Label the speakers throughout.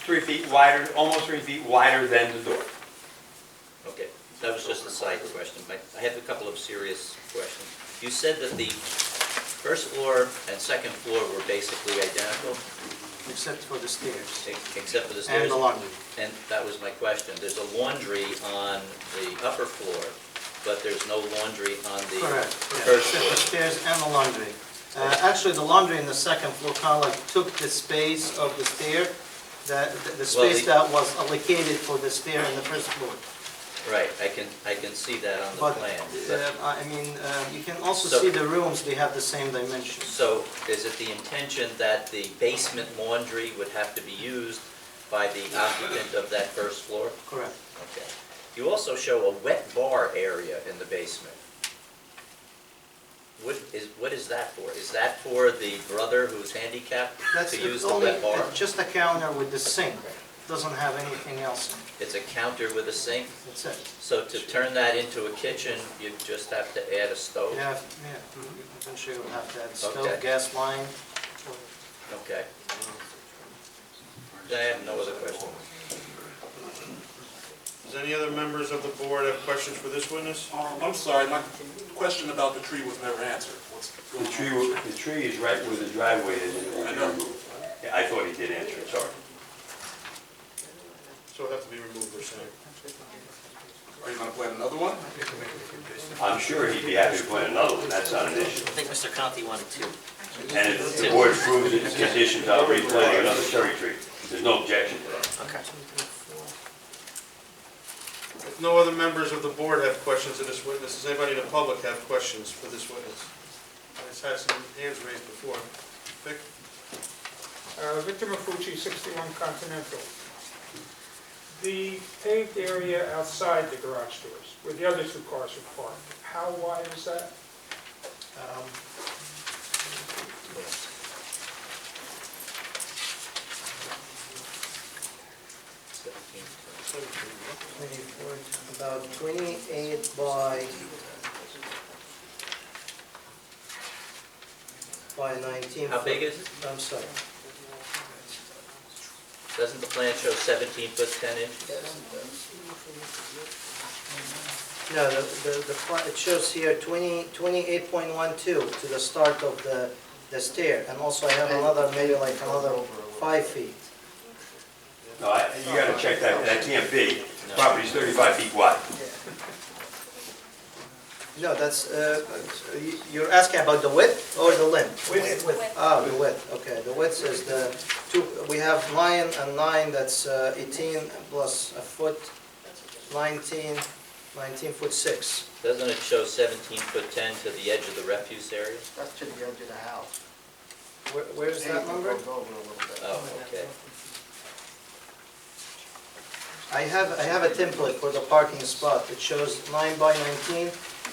Speaker 1: three feet wider, almost three feet wider than the door.
Speaker 2: Okay, that was just a side question. My- I have a couple of serious questions. You said that the first floor and second floor were basically identical,
Speaker 3: except for the stairs
Speaker 2: ex- except for the stairs?
Speaker 3: and the laundry.
Speaker 2: And that was my question. There's a laundry on the upper floor, but there's no laundry on the
Speaker 3: Correct, yeah,
Speaker 2: first
Speaker 3: except the
Speaker 2: floor.
Speaker 3: stairs and the laundry. Uh, Actually, the laundry in the second floor kind of like took the space of the stair, that, the- the space
Speaker 2: the-
Speaker 3: that was allocated for the stair in the first floor.
Speaker 2: Right, I can, I can see that on
Speaker 3: But,
Speaker 2: the plan.
Speaker 3: uh, I I mean, uh, you can also
Speaker 2: So-
Speaker 3: see the rooms, they have the same dimensions.
Speaker 2: So is it the intention that the basement laundry would have to be used by the occupant of that first floor?
Speaker 3: Correct.
Speaker 2: Okay. You also show a wet bar area in the basement. What is, what is that for? Is that for the brother who's handicapped
Speaker 3: That's
Speaker 2: to use
Speaker 3: it's
Speaker 2: the
Speaker 3: only,
Speaker 2: wet bar?
Speaker 3: it's just a counter with the sink, doesn't have anything else in it,
Speaker 2: It's a counter with a sink?
Speaker 3: that's it.
Speaker 2: So to turn that into a kitchen, you just have to add a stove?
Speaker 3: You have, yeah, mhm, eventually you'll have that stove,
Speaker 2: Okay.
Speaker 3: gas line.
Speaker 2: Okay. I have no other questions.
Speaker 4: Does any other members of the board have questions for this witness?
Speaker 5: Um, I'm sorry, my question about the tree was never answered. What's going
Speaker 6: The
Speaker 5: on?
Speaker 6: tree, wa- the tree is right where the driveway is, and it will
Speaker 5: I
Speaker 6: be
Speaker 5: know.
Speaker 6: removed. Yeah, I thought he did answer, it, sorry.
Speaker 4: So it'll have to be removed or something.
Speaker 5: Are you gonna plant another one?
Speaker 6: I'm sure he'd be happy to plant another one, that's not an issue.
Speaker 7: I think Mr. Conti wanted two.
Speaker 6: And if the board approves it, it's conditions, I'll replant another cherry tree. There's no objection to that.
Speaker 7: Okay.
Speaker 4: If no other members of the board have questions of this witness, does anybody in the public have questions for this witness? I had some hands raised before. Vic?
Speaker 8: Uh, Victor Mafucci, 61 Continental. The paved area outside the garage doors, where the other two cars are parked, how wide is that?
Speaker 3: Um, About 28 by, by 19.
Speaker 2: How big is it?
Speaker 3: I'm sorry.
Speaker 2: Doesn't the plan show 17 foot 10 inch?
Speaker 3: No, the, the- the, pla- it shows here 20, 28.12 to the start of the, the stair. And also I have another, maybe like another five feet.
Speaker 6: No, I- you gotta check that, that can't be. Property's 35 feet wide.
Speaker 3: No, that's, uh, you- you're asking about the width or the length?
Speaker 8: Width.
Speaker 3: Ah, the width, okay, the width is the two, we have nine and nine, that's uh, eighteen plus a foot, 19, 19 foot six.
Speaker 2: Doesn't it show 17 foot 10 to the edge of the refuse area?
Speaker 9: That's to the edge of the house.
Speaker 3: Where- Where's that number?
Speaker 9: Goes over a little bit.
Speaker 2: Oh, okay.
Speaker 3: I have, I have a template for the parking spot, it shows nine by nineteen,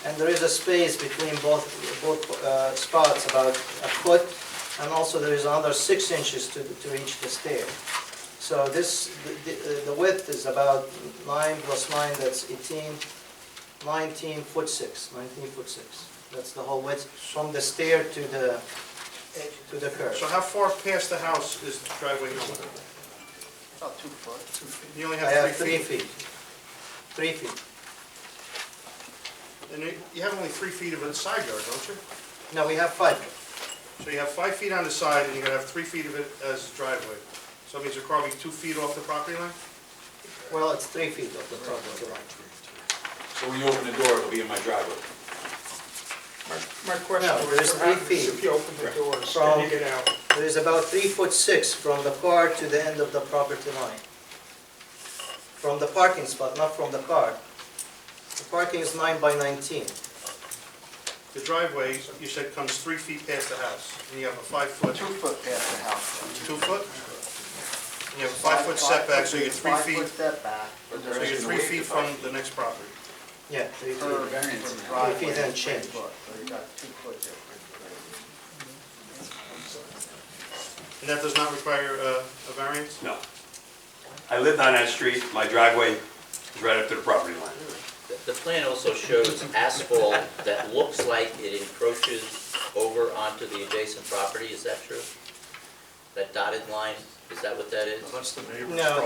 Speaker 3: and there is a space between both, both uh, spots, about a foot, and also there is another six inches to, to reach the stair. So this, the- uh, the the width is about nine plus nine, that's 18, 19 foot six, 19 foot six. That's the whole width, from the stair to the, to the curb.
Speaker 4: So how far past the house is the driveway going?
Speaker 9: About two foot.
Speaker 4: You only
Speaker 3: I have
Speaker 4: have
Speaker 3: three
Speaker 4: three feet.
Speaker 3: feet, three feet.
Speaker 4: And you- you have only three feet of a side yard, don't you?
Speaker 3: No, we have five.
Speaker 4: So you have five feet on the side, and you're gonna have three feet of it as driveway. So that means you're carving two feet off the property line?
Speaker 3: Well, it's three feet of the property line.
Speaker 5: So when you open the door, it'll be in my driveway.
Speaker 8: My- My question
Speaker 3: there's
Speaker 8: was,
Speaker 3: three
Speaker 8: what happens
Speaker 3: feet.
Speaker 8: if you open the doors,
Speaker 3: From-
Speaker 8: can you get out?
Speaker 3: There is about three foot six from the car to the end of the property line. From the parking spot, not from the car. The parking is nine by 19.
Speaker 4: The driveway, you said, comes three feet past the house, and you have a five-foot,
Speaker 9: Two foot past the house.
Speaker 4: two-foot? And you have a five-foot setback, so you're three feet,
Speaker 9: Five foot setback.
Speaker 5: But
Speaker 4: so
Speaker 5: there
Speaker 4: you're
Speaker 5: isn't a
Speaker 4: three
Speaker 5: way to
Speaker 4: feet from
Speaker 5: define.
Speaker 4: the next property.
Speaker 3: Yeah, three feet.
Speaker 9: Per variance. Three
Speaker 3: feet and change.
Speaker 9: So you got two foot difference.
Speaker 4: And that does not require uh, a variance?
Speaker 6: No. I lived on that street, my driveway is right up to the property line.
Speaker 2: The- The plan also shows asphalt that looks like it encroaches over onto the adjacent property, is that true? That dotted line
Speaker 10: Is that what that is?
Speaker 2: That's the neighbor's
Speaker 3: No.